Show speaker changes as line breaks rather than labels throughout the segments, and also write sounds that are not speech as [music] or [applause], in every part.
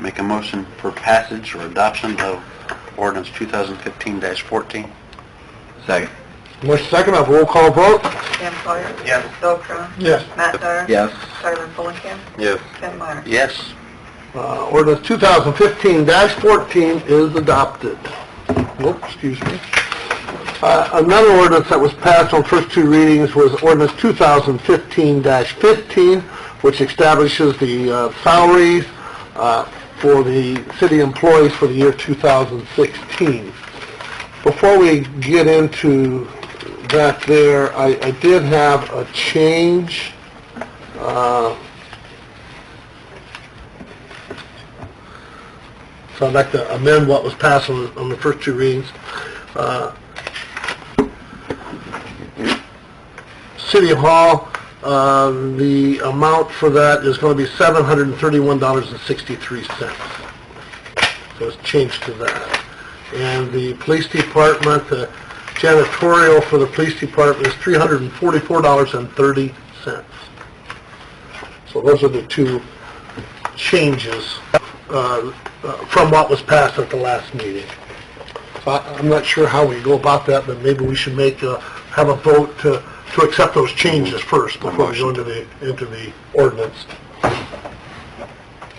Make a motion for passage or adoption of ordinance 2015-14. Second.
Motion second, have a roll call vote?
Sam Sawyer.
Yes.
Bill Crown.
Yes.
Matt Dyer.
Yes.
Tyler Fulenkamp.
Yes.
Ken Meyer.
Yes.
Uh, ordinance 2015-14 is adopted. Whoop, excuse me. Uh, another ordinance that was passed on first two readings was ordinance 2015-15, which establishes the uh, salaries uh, for the city employees for the year 2016. Before we get into that there, I, I did have a change. Uh, So I'd like to amend what was passed on, on the first two readings. Uh, City Hall, uh, the amount for that is going to be $731.63. So it's changed to that. And the police department, the janitorial for the police department is $344.30. So those are the two changes uh, uh, from what was passed at the last meeting. So I- I'm not sure how we go about that, but maybe we should make, a- have a vote to, to accept those changes first before we go into the, into the ordinance.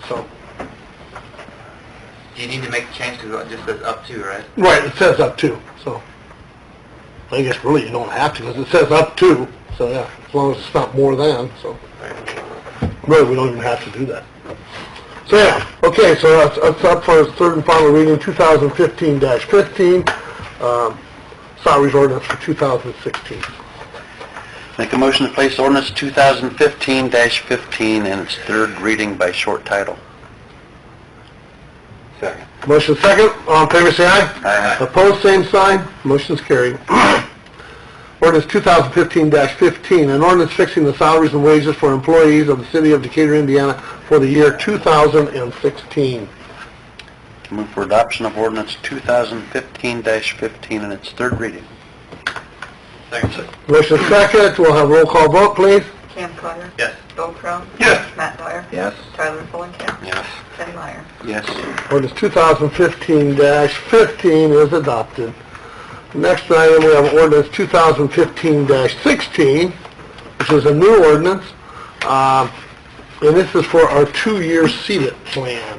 So,
Do you need to make a change to it just says up to, right?
right, it says up to, so. I guess really you don't have to, because it says up to, so yeah, as long as it's not more than, so. Really, we don't even have to do that. So, yeah, okay, so that's, that's up for its third and final reading, 2015-15, um, salaries ordinance for 2016.
Make a motion to place ordinance 2015-15 in its third reading by short title. Second.
Motion second, all in favor, say aye.
Aye.
Opposed, same sign, motion's carried. [clears throat] Ordinance 2015-15, an ordinance fixing the salaries and wages for employees of the city of Decatur, Indiana for the year 2016.
Move for adoption of ordinance 2015-15 in its third reading. Second.
Motion second, we'll have roll call vote, please.
Sam Sawyer.
Yes.
Bill Crown.
Yes.
Matt Dyer.
Yes.
Tyler Fulenkamp.
Yes.
Ken Meyer.
Yes.
Ordinance 2015-15 is adopted. Next item, we have ordinance 2015-16, which is a new ordinance, um, and this is for our two-year seated plan.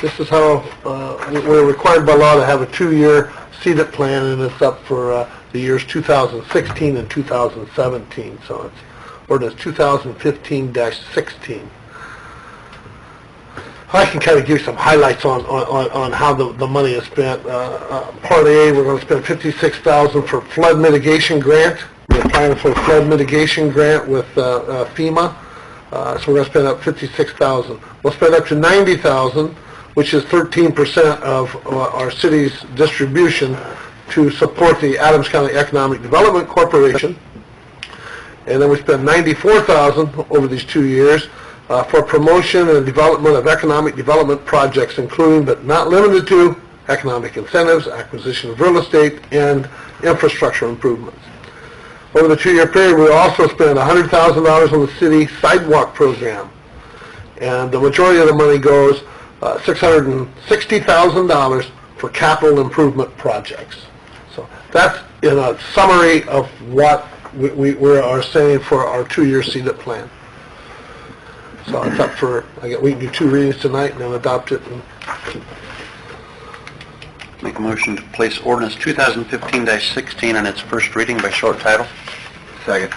This is how, uh, we- we're required by law to have a two-year seated plan, and it's up for uh, the years 2016 and 2017, so it's ordinance 2015-16. I can kind of give you some highlights on, on- on, on how the, the money is spent. Uh, uh, Part A, we're going to spend fifty-six thousand for flood mitigation grant. We're applying for a flood mitigation grant with uh, uh, FEMA, Uh, so we're going to spend up fifty-six thousand. We'll spend up to ninety thousand, which is thirteen percent of uh, our city's distribution to support the Adams County Economic Development Corporation. And then we spend ninety-four thousand over these two years uh, for promotion and development of economic development projects, including but not limited to economic incentives, acquisition of real estate, and infrastructure improvements. Over the two-year period, we also spent hundred thousand dollars on the city sidewalk program. And the majority of the money goes, uh, six hundred and sixty thousand dollars for capital improvement projects. So that's in a summary of what we, we, we are saying for our two-year CDIP plan. So it's up for, I guess, we can do two readings tonight and then adopt it. and-
Make a motion to place ordinance 2015-16 in its first reading by short title. Second.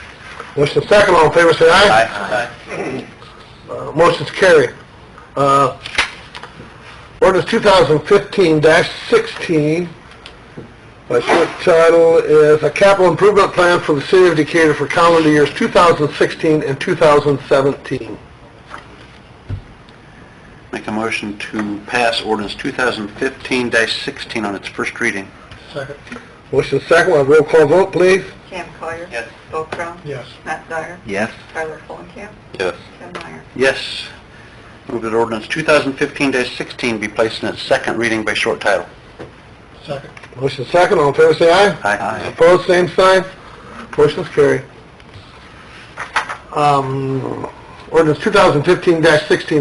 Motion second, all in favor, say aye.
Aye.
Uh, Motion's carried. Uh, ordinance 2015-16, my short title is A Capital Improvement Plan for the City of Decatur for Calendar Years 2016 and 2017.
Make a motion to pass ordinance 2015-16 on its first reading.
Second. Motion second, we'll have roll call vote, please.
Sam Sawyer.
Yes.
Bill Crown.
Yes.
Matt Dyer.
Yes.
Tyler Fulenkamp.
Yes.
Ken Meyer.
Yes. Move that ordinance 2015-16 be placed in its second reading by short title.
Second. Motion second, all in favor, say aye.
Aye.
Opposed, same sign. Motion's carried. Um, ordinance 2015-16